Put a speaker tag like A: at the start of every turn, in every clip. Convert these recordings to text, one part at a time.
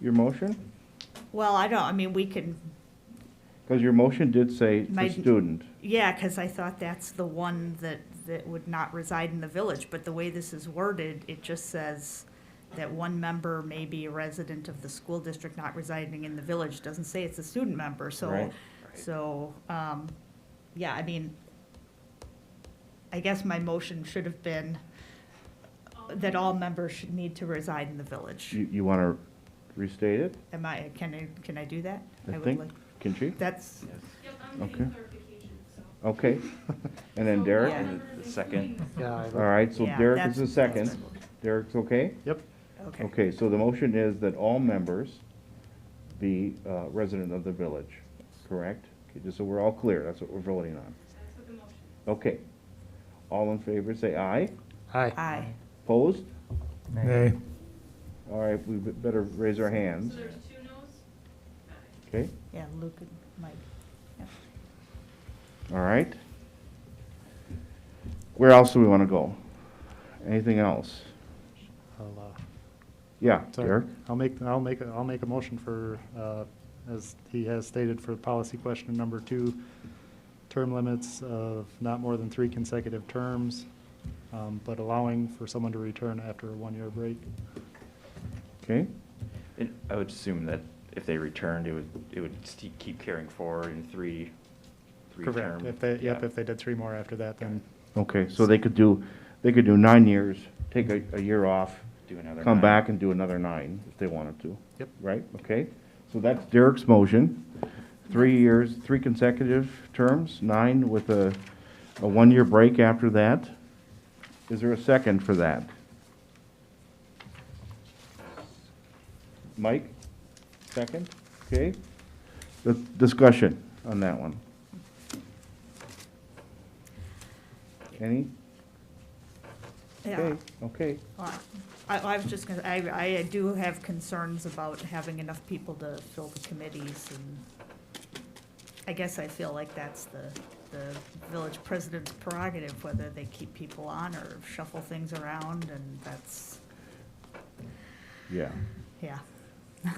A: your motion?
B: Well, I don't, I mean, we can,
A: Because your motion did say
B: My-
A: the student.
B: yeah, because I thought that's the one that, that would not reside in the village, but the way this is worded, it just says that one member may be a resident of the school district not residing in the village, doesn't say it's a student member, so,
A: Right.
B: so, um, yeah, I mean, I guess my motion should have been that all members should need to reside in the village.
A: You, you want to restate it?
B: Am I, can I, can I do that?
A: I
B: would
A: think,
B: like-
A: can she?
B: That's,
C: Yep, I'm getting
A: Okay.
C: clarification, so.
A: Okay. And then
C: So
A: Derek?
B: Yeah.
C: all members,
D: The second.
C: including the-
E: Yeah, I
A: All
E: would-
A: right, so
B: Yeah,
A: Derek is
B: that's-
A: the second. Derek's okay?
E: Yep.
B: okay.
A: Okay, so the motion is that all members be uh, resident of the village, correct? Okay, Just so we're all clear, that's what we're voting on.
C: That's what the motion is.
A: Okay. All in favor, say aye.
E: Aye.
B: Aye.
A: Opposed?
F: Nay.
A: All right, we be- better raise our hands,
C: So there's two no's. Aye.
A: okay?
B: Yeah, Luke and Mike. Yep.
A: All right. Where else do we want to go? Anything else?
E: I'll, uh,
A: Yeah,
E: sorry.
A: Derek?
E: I'll make, I'll make, a- I'll make a motion for, uh, as he has stated, for policy question number two, term limits of not more than three consecutive terms, um, but allowing for someone to return after a one-year break.
A: Okay,
D: And I would assume that if they returned, it would, it would st- keep carrying forward in three, three term.
E: Correct. If they, yep,
D: yeah.
E: if they did three more after that, then
A: okay, so they could do, they could do nine years, take a, a year off,
D: Do another
A: come
D: nine.
A: back and do another nine if they wanted to.
E: Yep.
A: Right, okay? So that's Derek's motion. Three years, three consecutive terms, nine with a, a one-year break after that. Is there a second for that? Mike, second, okay? The discussion on that one. Any?
B: Yeah.
A: Okay, Okay.
B: Well, I, I was just gonna, I, I do have concerns about having enough people to fill the committees and I guess I feel like that's the, the village president's prerogative, whether they keep people on or shuffle things around and that's,
A: Yeah.
B: yeah.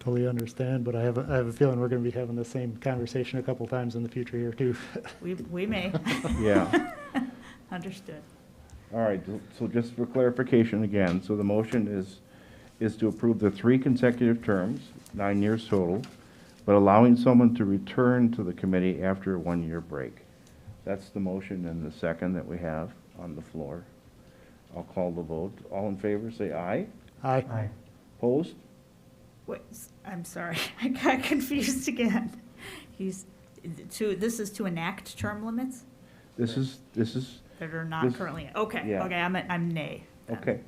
E: totally understand, but I have, a- I have a feeling we're gonna be having the same conversation a couple times in the future here too.
B: We, we may.
A: Yeah.
B: Understood.
A: All right, so just for clarification again, so the motion is, is to approve the three consecutive terms, nine years total, but allowing someone to return to the committee after a one-year break. That's the motion and the second that we have on the floor. I'll call the vote. All in favor, say aye.
E: Aye.
A: Opposed?
B: Wait, s- I'm sorry, I got confused again. He's, to, this is to enact term limits
A: This is, this is,
B: that are not
A: This-
B: currently, okay,
A: yeah.
B: okay, I'm, a- I'm nay. then.
A: okay.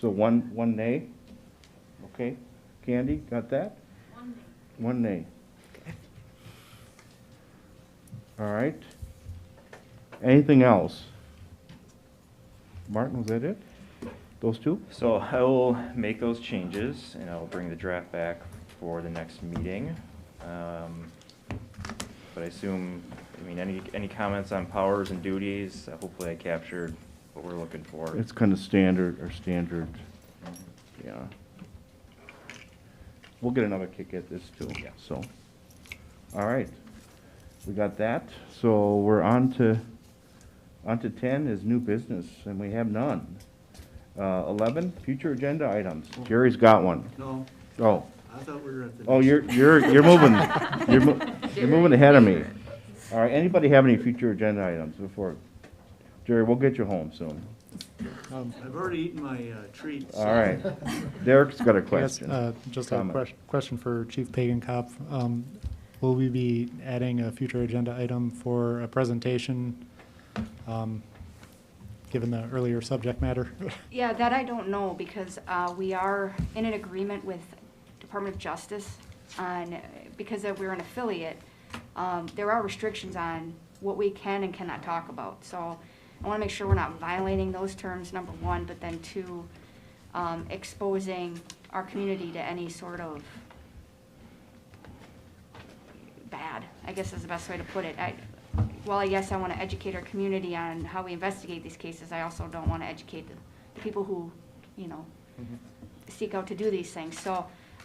A: So one, one nay? Okay. Candy, got that?
C: One nay.
A: One nay. All right. Anything else? Martin, was that it? Those two?
D: So I will make those changes and I'll bring the draft back for the next meeting. Um, But I assume, I mean, any, any comments on powers and duties? Hopefully I captured what we're looking for.
A: It's kind of standard, or standard, yeah. We'll get another kick at this too,
D: Yeah.
A: so. All right. We got that. So we're on to, on to ten is new business, and we have none. Uh, eleven, future agenda items. Jerry's got one.
G: Oh. No,
A: Oh.
G: I thought we were at the.
A: Oh, you're, you're, you're moving, you're, mo- you're moving ahead of me. All right, anybody have any future agenda items before? Jerry, we'll get you home soon.
E: Um,
G: I've already eaten my uh, treats.
A: All right. Derek's got a
E: I guess,
A: question.
E: uh, Just a
A: Comment.
E: question, question for Chief Pagan Cop. Um, Will we be adding a future agenda item for a presentation, um, given the earlier subject matter?
H: Yeah, that I don't know, because uh, we are in an agreement with Department of Justice on, because that we're an affiliate, um, there are restrictions on what we can and cannot talk about. So I want to make sure we're not violating those terms, number one, but then two, um, exposing our community to any sort of bad, I guess is the best way to put it. I, while yes, I want to educate our community on how we investigate these cases, I also don't want to educate the, the people who, you know, seek out to do these things. So